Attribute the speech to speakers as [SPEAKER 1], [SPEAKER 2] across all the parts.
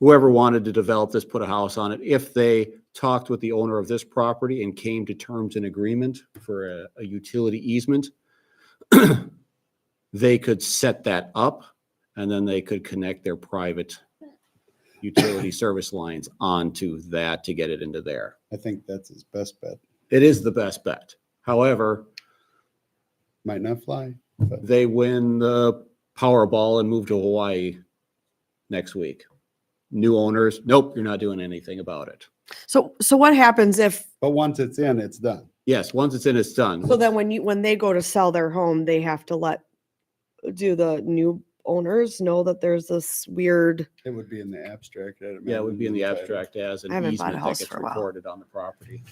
[SPEAKER 1] whoever wanted to develop this, put a house on it, if they talked with the owner of this property and came to terms and agreement for a, a utility easement, they could set that up and then they could connect their private utility service lines onto that to get it into there.
[SPEAKER 2] I think that's his best bet.
[SPEAKER 1] It is the best bet. However,
[SPEAKER 2] Might not fly.
[SPEAKER 1] they win the Powerball and move to Hawaii next week. New owners, nope, you're not doing anything about it.
[SPEAKER 3] So, so what happens if,
[SPEAKER 2] But once it's in, it's done.
[SPEAKER 1] Yes, once it's in, it's done.
[SPEAKER 3] so then when you, when they go to sell their home, they have to let, do the new owners know that there's this weird,
[SPEAKER 2] It would be in the abstract. I'd
[SPEAKER 1] Yeah, it would be in the
[SPEAKER 2] imagine, title.
[SPEAKER 1] abstract as an
[SPEAKER 3] I haven't bought a
[SPEAKER 1] easement that
[SPEAKER 3] house
[SPEAKER 1] gets
[SPEAKER 3] for a while.
[SPEAKER 1] recorded on the property.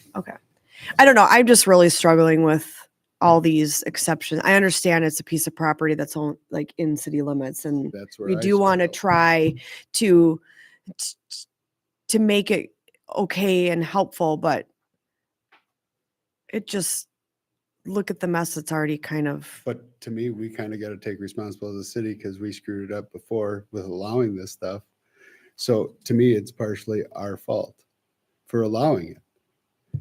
[SPEAKER 3] I don't know, I'm just really struggling with all these exceptions. I understand it's a piece of property that's on, like, in city limits and
[SPEAKER 2] That's where
[SPEAKER 3] we
[SPEAKER 2] I
[SPEAKER 3] do want to
[SPEAKER 2] struggle.
[SPEAKER 3] try to, t- t- to make it okay and helpful, but it just, look at the mess that's already kind of,
[SPEAKER 2] But to me, we kind of got to take responsibility as a city because we screwed it up before with allowing this stuff. So to me, it's partially our fault for allowing it.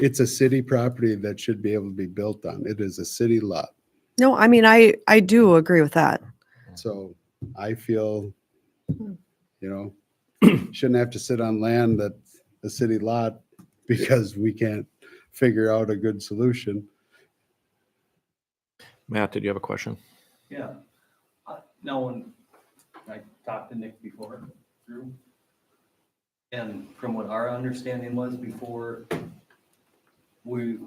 [SPEAKER 2] It's a city property that should be able to be built on. It is a city lot.
[SPEAKER 3] no, I mean, I, I do agree with that.
[SPEAKER 2] So I feel,
[SPEAKER 3] Hmm.
[SPEAKER 2] you know, shouldn't have to sit on land that's a city lot because we can't figure out a good solution.
[SPEAKER 4] Matt, did you have a question?
[SPEAKER 5] Yeah. Uh, Now, when I talked to Nick before, Drew, and from what our understanding was before we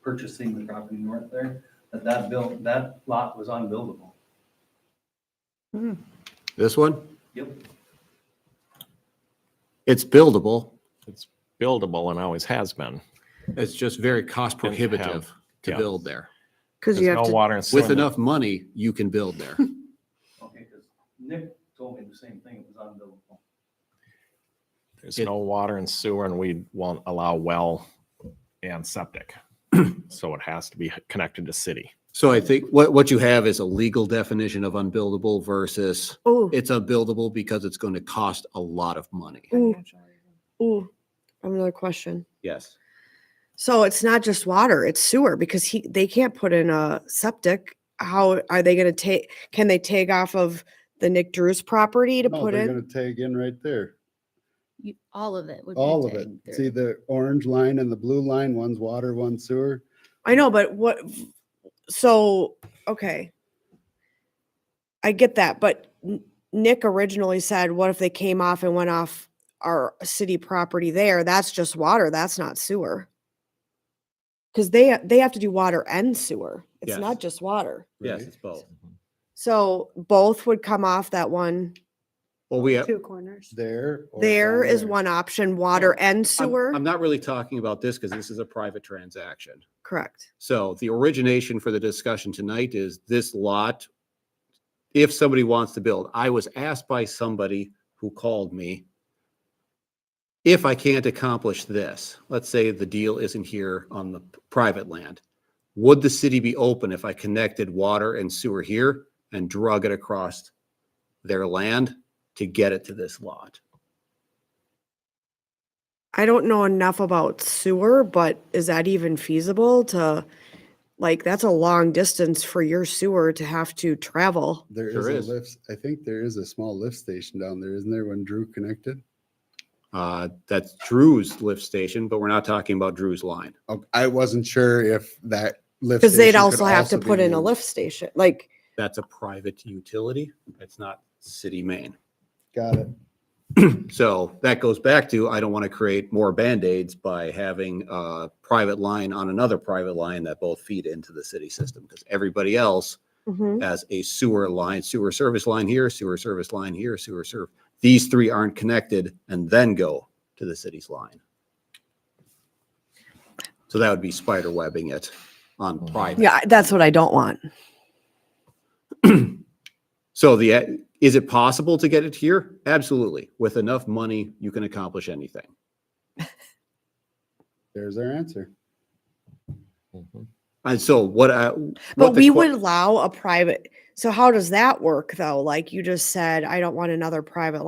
[SPEAKER 5] purchasing the property north there, that that built, that lot was unbuildable.
[SPEAKER 1] This one,
[SPEAKER 5] Yep.
[SPEAKER 1] it's buildable.
[SPEAKER 4] It's buildable and always has been.
[SPEAKER 1] It's just very cost
[SPEAKER 4] And have-
[SPEAKER 1] prohibitive to
[SPEAKER 4] yeah.
[SPEAKER 1] build there.
[SPEAKER 3] Cause
[SPEAKER 4] There's
[SPEAKER 3] you have
[SPEAKER 4] no
[SPEAKER 3] to
[SPEAKER 4] water and
[SPEAKER 1] With
[SPEAKER 4] sewer.
[SPEAKER 1] enough money, you can build there.
[SPEAKER 5] Okay, because Nick told me the same thing, it was unbuildable.
[SPEAKER 4] There's
[SPEAKER 1] it-
[SPEAKER 4] no water and sewer and we won't allow well and septic. So it has to be connected to city.
[SPEAKER 1] So I think what, what you have is a legal definition of unbuildable versus
[SPEAKER 3] Oh,
[SPEAKER 1] it's unbuildable because it's going to cost a lot of money.
[SPEAKER 3] ooh, ooh. I have Another question.
[SPEAKER 1] Yes.
[SPEAKER 3] So it's not just water, it's sewer because he, they can't put in a septic. How are they gonna take, can they take off of the Nick Drew's property to
[SPEAKER 2] No,
[SPEAKER 3] put
[SPEAKER 2] They're
[SPEAKER 3] in?
[SPEAKER 2] going to tag in right there,
[SPEAKER 6] You, all of it would be.
[SPEAKER 2] all of it.
[SPEAKER 6] taken
[SPEAKER 2] See
[SPEAKER 6] through.
[SPEAKER 2] the orange line and the blue line, one's water, one's sewer.
[SPEAKER 3] I know, but what, so, okay. I get that, but N- Nick originally said, what if they came off and went off our city property there? That's just water, that's not sewer. Cause they, ha- they have to do water and sewer. It's
[SPEAKER 1] Yes.
[SPEAKER 3] not just water.
[SPEAKER 1] Yes,
[SPEAKER 2] right?
[SPEAKER 1] it's both.
[SPEAKER 4] Mm-hmm.
[SPEAKER 3] So both would come off that one.
[SPEAKER 1] Well, we, I'm,
[SPEAKER 6] Two corners.
[SPEAKER 2] There. or
[SPEAKER 3] There
[SPEAKER 2] down
[SPEAKER 3] is
[SPEAKER 2] there.
[SPEAKER 3] one option, water and sewer.
[SPEAKER 1] I'm not really talking about this because this is a private transaction.
[SPEAKER 3] Correct.
[SPEAKER 1] So the origination for the discussion tonight is this lot, if somebody wants to build, I was asked by somebody who called me, if I can't accomplish this, let's say the deal isn't here on the p- private land, would the city be open if I connected water and sewer here and drug it across their land to get it to this lot?
[SPEAKER 3] I don't know enough about sewer, but is that even feasible to, like, that's a long distance for your sewer to have to travel.
[SPEAKER 2] There
[SPEAKER 1] Sure is.
[SPEAKER 2] is a lift. I think there is a small lift station down there, isn't there, when Drew connected?
[SPEAKER 1] Uh, That's Drew's lift station, but we're not talking about Drew's line.
[SPEAKER 2] Oh, I wasn't sure if that lift.
[SPEAKER 3] Because they'd
[SPEAKER 2] station could
[SPEAKER 3] also have to
[SPEAKER 2] be
[SPEAKER 3] put in a
[SPEAKER 2] used.
[SPEAKER 3] lift station, like,
[SPEAKER 1] That's a private utility. It's not city main.
[SPEAKER 2] Got it.
[SPEAKER 1] So that goes back to, I don't want to create more Band-Aids by having a private line on another private line that both feed into the city system. Because everybody else
[SPEAKER 3] mhm.
[SPEAKER 1] has a sewer line, sewer service line here, sewer service line here, sewer serv. These three aren't connected and then go to the city's line. So that would be spider webbing it on private.
[SPEAKER 3] yeah, I- that's what I don't want.
[SPEAKER 1] So the, is it possible to get it here? Absolutely. With enough money, you can accomplish anything.
[SPEAKER 2] There's our answer.
[SPEAKER 1] And so what I. what
[SPEAKER 3] But
[SPEAKER 1] the
[SPEAKER 3] we
[SPEAKER 1] que-
[SPEAKER 3] would allow a private, so how does that work though? Like you just said, I don't want another private line.